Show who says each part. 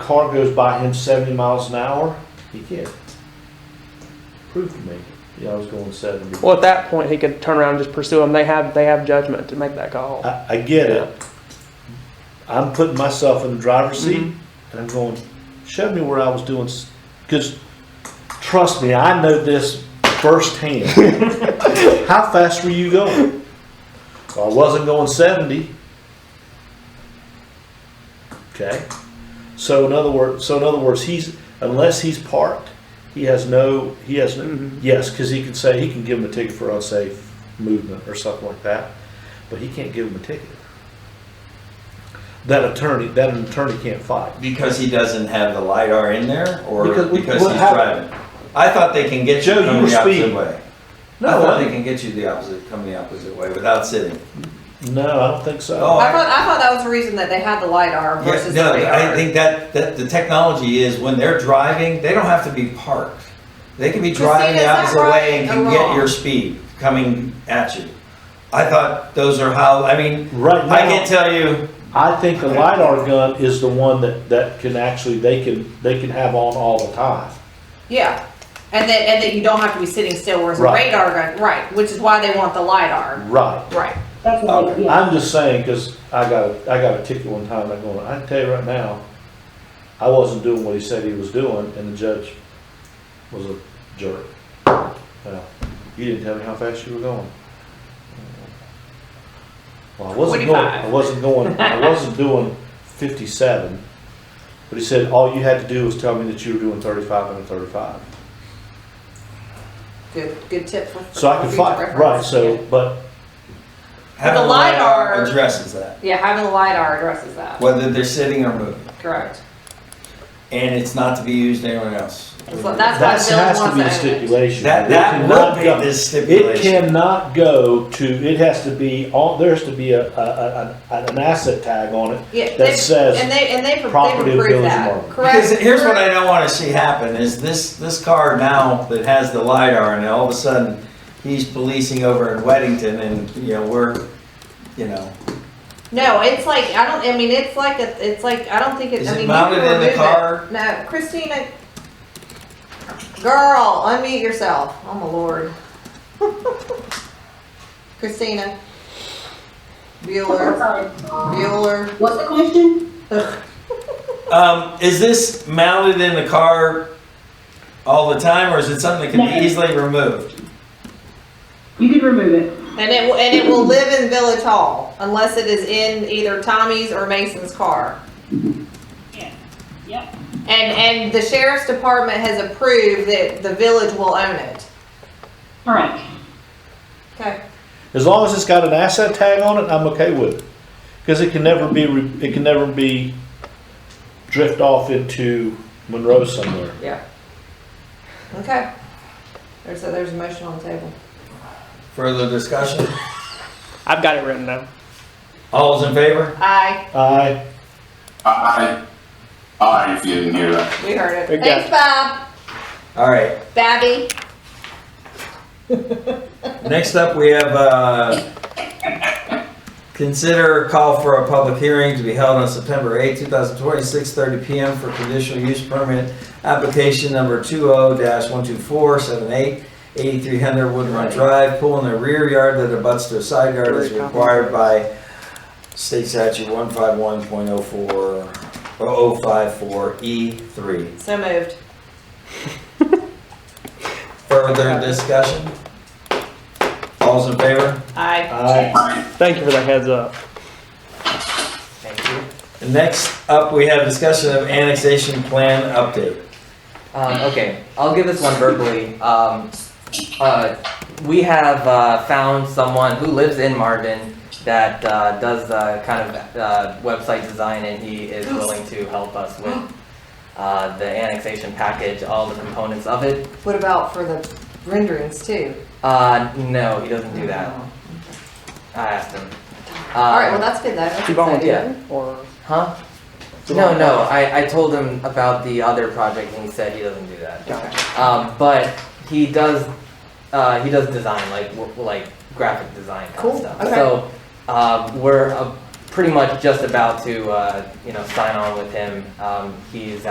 Speaker 1: car goes by him seventy miles an hour, he can't prove to me, yeah, I was going seventy.
Speaker 2: Well, at that point, he could turn around and just pursue him. They have they have judgment to make that call.
Speaker 1: I, I get it. I'm putting myself in the driver's seat
Speaker 2: Mhm.
Speaker 1: and I'm going, show me where I was doing, because trust me, I know this firsthand. How fast were you going? Well, I wasn't going seventy. Okay, so in other words, so in other words, he's, unless he's parked, he has no, he has no,
Speaker 2: Mhm.
Speaker 1: Yes, because he can say, he can give him a ticket for unsafe movement or something like that, but he can't give him a ticket. That attorney, that an attorney can't fight.
Speaker 3: Because he doesn't have the LiDAR in there or
Speaker 1: Because
Speaker 3: because
Speaker 1: we-
Speaker 3: he's
Speaker 1: what happened-
Speaker 3: driving? I thought they can get you
Speaker 1: Joe, you
Speaker 3: from
Speaker 1: were
Speaker 3: the opposite
Speaker 1: speeding.
Speaker 3: way. I
Speaker 1: No,
Speaker 3: thought they
Speaker 1: I-
Speaker 3: can get you the opposite, come the opposite way without sitting.
Speaker 1: no, I don't think so.
Speaker 3: Oh,
Speaker 4: I thought, I thought that was the reason that they had the LiDAR
Speaker 3: Yeah,
Speaker 4: versus
Speaker 3: no,
Speaker 4: the radar.
Speaker 3: I think that, that the technology is when they're driving, they don't have to be parked. They can be
Speaker 4: Christine,
Speaker 3: driving
Speaker 4: is
Speaker 3: the
Speaker 4: that
Speaker 3: opposite way and
Speaker 4: right
Speaker 3: can
Speaker 4: or
Speaker 3: get
Speaker 4: wrong?
Speaker 3: your speed coming at you. I thought those are how, I mean,
Speaker 1: Right
Speaker 3: I can
Speaker 1: now,
Speaker 3: tell you,
Speaker 1: I think the LiDAR gun is the one that, that can actually, they can, they can have on all the time.
Speaker 4: Yeah, and that and that you don't have to be sitting still, whereas
Speaker 1: Right.
Speaker 4: a radar gun, right? Which is why they want the lidar,
Speaker 1: Right.
Speaker 4: right?
Speaker 5: That's what they, yeah.
Speaker 1: Um, I'm just saying, because I got, a- I got a ticket one time, I'm going, I can tell you right now, I wasn't doing what he said he was doing, and the judge was a jerk. Well, You didn't tell me how fast you were going. Well, I wasn't going, I
Speaker 4: 45.
Speaker 1: wasn't going, I wasn't doing fifty-seven, but he said, all you had to do was tell me that you were doing thirty-five and a thirty-five.
Speaker 4: Good, good tip for.
Speaker 1: So I
Speaker 4: for
Speaker 1: could
Speaker 4: future
Speaker 1: fight,
Speaker 4: reference.
Speaker 1: right, so, but
Speaker 3: having
Speaker 4: the
Speaker 3: the LiDAR
Speaker 4: LiDAR
Speaker 3: addresses that,
Speaker 4: Yeah, having the lidar addresses that.
Speaker 3: whether they're sitting or moving.
Speaker 4: Correct.
Speaker 3: And it's not to be used anywhere else.
Speaker 4: It's like- that's
Speaker 1: That
Speaker 4: why Bill
Speaker 1: has to
Speaker 4: wants
Speaker 1: be the
Speaker 4: to own it.
Speaker 1: stipulation.
Speaker 3: That,
Speaker 1: It
Speaker 3: that will
Speaker 1: cannot
Speaker 3: be
Speaker 1: go-
Speaker 3: the
Speaker 1: It
Speaker 3: stipulation.
Speaker 1: cannot go to, it has to be, on. there has to be a, a, a, an- an asset tag on it
Speaker 4: Yeah.
Speaker 1: that
Speaker 4: they- And
Speaker 1: says,
Speaker 4: they and they pro-
Speaker 1: property of
Speaker 4: they prove
Speaker 1: Village
Speaker 4: that.
Speaker 1: Market.
Speaker 4: Correct.
Speaker 3: Because here's what I don't want to see happen is this, this car now that has the LiDAR and all of a sudden he's policing over in Weddington and, you know, we're, you know,
Speaker 4: No, it's like I don't. I mean, it's like a, it's like I don't think it.
Speaker 3: Is
Speaker 4: I
Speaker 3: it
Speaker 4: mean, you
Speaker 3: mounted
Speaker 4: can
Speaker 3: in the
Speaker 4: remove it.
Speaker 3: car?
Speaker 4: No, Christina. Girl, unmute yourself. Oh my lord. Christina. Bueller.
Speaker 5: Sorry.
Speaker 4: Bueller.
Speaker 5: What's the question?
Speaker 3: um, is this mounted in the car all the time or is it something that can be easily removed?
Speaker 5: You can remove it.
Speaker 4: And it will- and it will live in Village Hall unless it is in either Tommy's or Mason's car.
Speaker 5: Yeah. Yep.
Speaker 4: And and the sheriff's department has approved that the village will own it.
Speaker 5: Correct.
Speaker 4: Okay.
Speaker 1: as long as it's got an asset tag on it, I'm okay with it. Cause it can never be, re- it can never be drift off into Monroe somewhere.
Speaker 4: Yeah. Okay. There's a, there's a motion on the table.
Speaker 3: Further discussion?
Speaker 2: I've got it written down.
Speaker 3: All's in favor?
Speaker 4: Aye.
Speaker 1: I,
Speaker 6: Aye. Aye, if you didn't hear that.
Speaker 4: We heard it.
Speaker 2: We got
Speaker 4: Thanks, Bob.
Speaker 3: All right.
Speaker 4: Babby.
Speaker 3: Next up, we have, uh, consider call for a public hearing to be held on September 8, 2020, 6:30 PM for conditional use permit application number 20-12478, 8300 Wood Run Drive, pool in the rear yard that abuts to a side yard is required by state statute 151.04, E 0054E3.
Speaker 4: So moved.
Speaker 3: Further discussion? All's in favor?
Speaker 4: Aye.
Speaker 1: I,
Speaker 2: Thank you for the heads up.
Speaker 3: Next up, we have discussion of annexation plan update.
Speaker 7: Um, okay, I'll give this one verbally. Um, uh, we have uh, found someone who lives in Marvin that uh, does uh, kind of uh, website design, and he is willing to help us with uh, the annexation package, all the components of it.
Speaker 4: What about for the renderings too?
Speaker 7: Uh, no, he doesn't do that. I asked him. Uh,
Speaker 4: All right. Well, that's good though. That's
Speaker 2: You
Speaker 4: exciting.
Speaker 2: volunteer or
Speaker 7: Huh?
Speaker 2: So
Speaker 7: No,
Speaker 2: what-
Speaker 7: no. I, I told him about the other project, and he said he doesn't do that.
Speaker 2: Gotcha.
Speaker 7: Um, but he does, uh, he does design like w- like graphic design kind
Speaker 4: Cool,
Speaker 7: of stuff.
Speaker 4: okay.
Speaker 7: So um, we're uh, pretty much just about to, uh, you know, sign on with him. Um, he's